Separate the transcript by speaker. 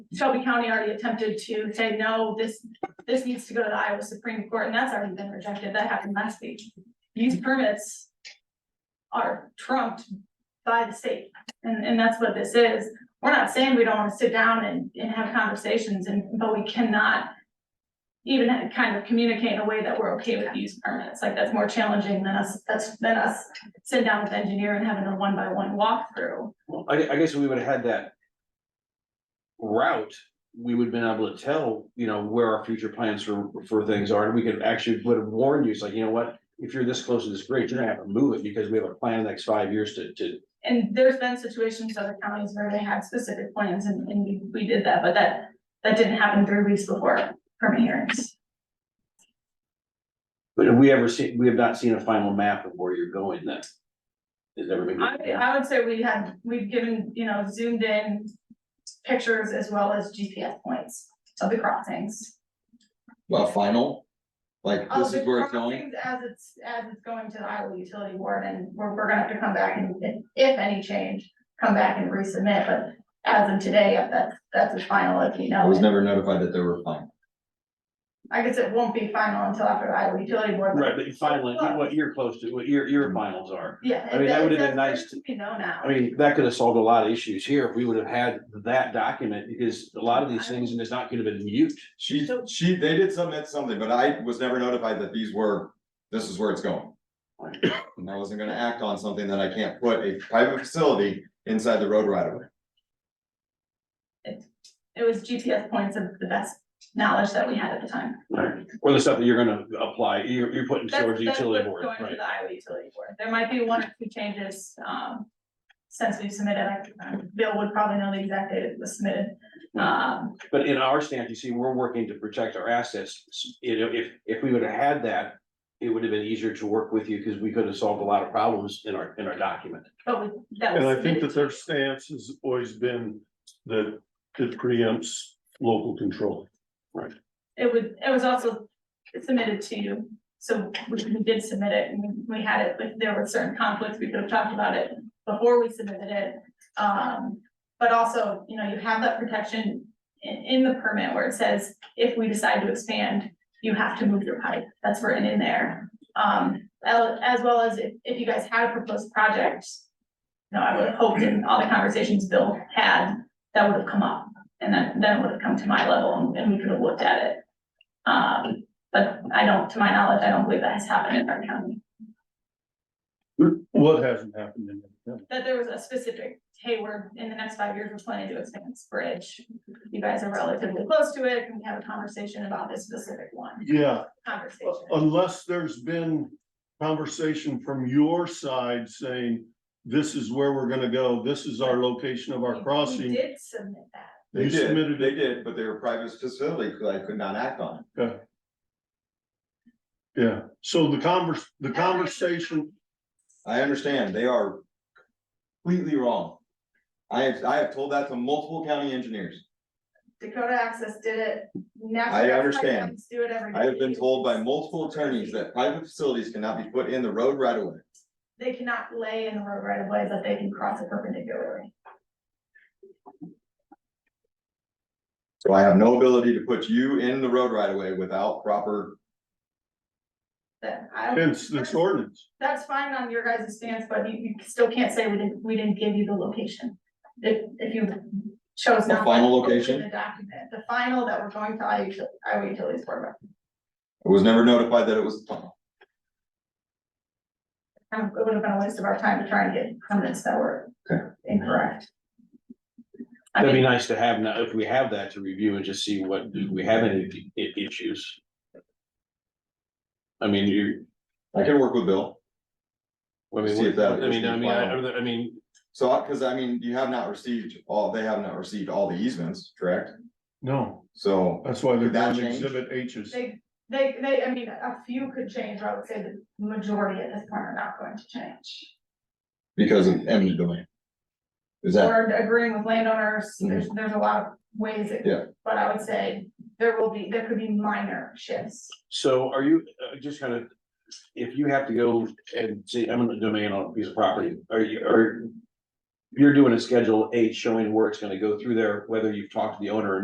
Speaker 1: Shelby County already attempted to say, no, this, this needs to go to the Iowa Supreme Court, and that's already been rejected, that happened last week. These permits are trumped by the state, and, and that's what this is. We're not saying we don't wanna sit down and, and have conversations, and, but we cannot even kind of communicate in a way that we're okay with use permits, like that's more challenging than us, that's, than us sitting down with the engineer and having a one-by-one walkthrough.
Speaker 2: I, gue- I guess we would have had that. Route, we would have been able to tell, you know, where our future plans for, for things are, and we could actually would have warned you, it's like, you know what? If you're this close to this bridge, you're gonna have to move it because we have a plan in the next five years to, to,
Speaker 1: And there's been situations other counties where they had specific plans and, and we, we did that, but that, that didn't happen three weeks before permit hearings.
Speaker 2: but have we ever seen, we have not seen a final map of where you're going then. Has ever been.
Speaker 1: I, I would say we had, we've given, you know, zoomed in pictures as well as GPS points of the crossings.
Speaker 3: Well, final, like
Speaker 1: Of
Speaker 3: this
Speaker 1: Oh, the
Speaker 3: is where it's going,
Speaker 1: crossings As it's, as it's going to the Iowa Utility Board and we're, we're gonna have to come back and, and if any change, come back and resubmit, but as of today, that's, that's as final as you know.
Speaker 3: I was
Speaker 1: it.
Speaker 3: never notified that there were final.
Speaker 1: I guess it won't be final until after the Iowa Utility Board.
Speaker 2: Right, but finally, what you're close to, what your, your finals are.
Speaker 1: Yeah.
Speaker 2: I mean, that
Speaker 1: it-
Speaker 2: would've been
Speaker 1: it-
Speaker 2: nice to-
Speaker 1: We know now.
Speaker 2: I mean, that could have solved a lot of issues here if we would have had that document, because a lot of these things, and it's not gonna have been mute.
Speaker 3: She, she, they did submit something, but I was never notified that these were, this is where it's going. And I wasn't gonna act on something that I can't put a private facility inside the road right away.
Speaker 1: It was GPS points of the best knowledge that we had at the time.
Speaker 2: Or the stuff that you're gonna apply, you're, you're putting
Speaker 1: That's-
Speaker 2: towards the
Speaker 1: that's
Speaker 2: utility
Speaker 1: what's Going
Speaker 2: board,
Speaker 1: to
Speaker 2: right?
Speaker 1: the Iowa Utility Board. There might be one or two changes, um, since we submitted, I, um, Bill would probably know the exact date it was submitted. Um,
Speaker 2: But in our stance, you see, we're working to protect our assets, S- you know, if, if we would have had that. It would have been easier to work with you, because we could have solved a lot of problems in our, in our document.
Speaker 1: but we, that was.
Speaker 4: And I think
Speaker 1: submitted.
Speaker 4: that their stance has always been that it preempts local control.
Speaker 1: It would, it was also submitted to you, so we we did submit it and we- we had it, but there were certain conflicts, we could have talked about it before we submitted it. Um, but also, you know, you have that protection in, in the permit where it says, if we decide to expand, you have to move your pipe, that's written in there. Um, el- as well as if, if you guys had a proposed project, you know, I would have hoped in all the conversations Bill had, that would have come up. And then, then it would have come to my level and- and we could have looked at it. Um, but I don't, to my knowledge, I don't believe that has happened in our county,
Speaker 4: What hasn't happened in that?
Speaker 1: that there was a specific, hey, we're in the next five years, we're planning to expand this bridge. You guys are relatively close to it, can we have a conversation about this specific one,
Speaker 4: Yeah,
Speaker 1: conversation?
Speaker 4: unless there's been conversation from your side saying, this is where we're gonna go, this is our location of
Speaker 1: We-
Speaker 4: our
Speaker 1: we
Speaker 4: crossing.
Speaker 1: Did submit that,
Speaker 3: They
Speaker 4: You
Speaker 3: did,
Speaker 4: submitted
Speaker 3: they
Speaker 4: it,
Speaker 3: did, but they were private facility, 'cause I could not act on it.
Speaker 4: yeah. So the converse, the conversation,
Speaker 3: I understand, they are completely wrong. I have, I have told that to multiple county engineers.
Speaker 1: Dakota Access did it. National
Speaker 3: I
Speaker 1: Gas
Speaker 3: understand.
Speaker 1: Pipelines Do it every.
Speaker 3: I have been
Speaker 1: day.
Speaker 3: told by multiple attorneys that private facilities cannot be put in the road right away.
Speaker 1: They cannot lay in the road right of way, but they can cross it perpendicularly,
Speaker 3: So I have no ability to put you in the road right away without proper,
Speaker 1: that I. don't-
Speaker 4: hence this ordinance.
Speaker 1: That's fine on your guys' stance, but you, you still can't say we didn't, we didn't give you the location. If, if you chose
Speaker 3: The
Speaker 1: not.
Speaker 3: final
Speaker 1: to put it in
Speaker 3: location?
Speaker 1: The document, the final that we're going to Iowa Util- Iowa Utilities Board, about.
Speaker 3: I was never notified that it was final.
Speaker 1: Um, it would have been a waste of our time to try and get permits that were
Speaker 3: Okay.
Speaker 1: incorrect. I
Speaker 2: That'd be
Speaker 1: mean,
Speaker 2: nice to have now, if we have that to review and just see what, do we have any i- issues? I mean, you,
Speaker 3: I can work with Bill.
Speaker 2: I mean,
Speaker 3: See if that-
Speaker 2: I mean, I mean, I, I mean,
Speaker 3: So, I- cause I mean, you have not received all, they have not received all the easements, correct?
Speaker 4: No,
Speaker 3: So,
Speaker 4: that's why they're
Speaker 3: Did that
Speaker 4: doing
Speaker 3: change?
Speaker 4: exhibit H's.
Speaker 1: They, they, they, I mean, a few could change, or I would say the majority at this point are not going to change.
Speaker 3: because of eminent domain. Is that, Mm-hmm.
Speaker 1: Or agreeing with landowners, there's, there's a lot of ways it.
Speaker 3: Yeah.
Speaker 1: But I would say there will be, there could be minor shifts.
Speaker 2: So are you, uh, just kind of, if you have to go and say eminent domain on a piece of property, are you, are you're doing a schedule eight showing where it's gonna go through there, whether you've talked to the owner or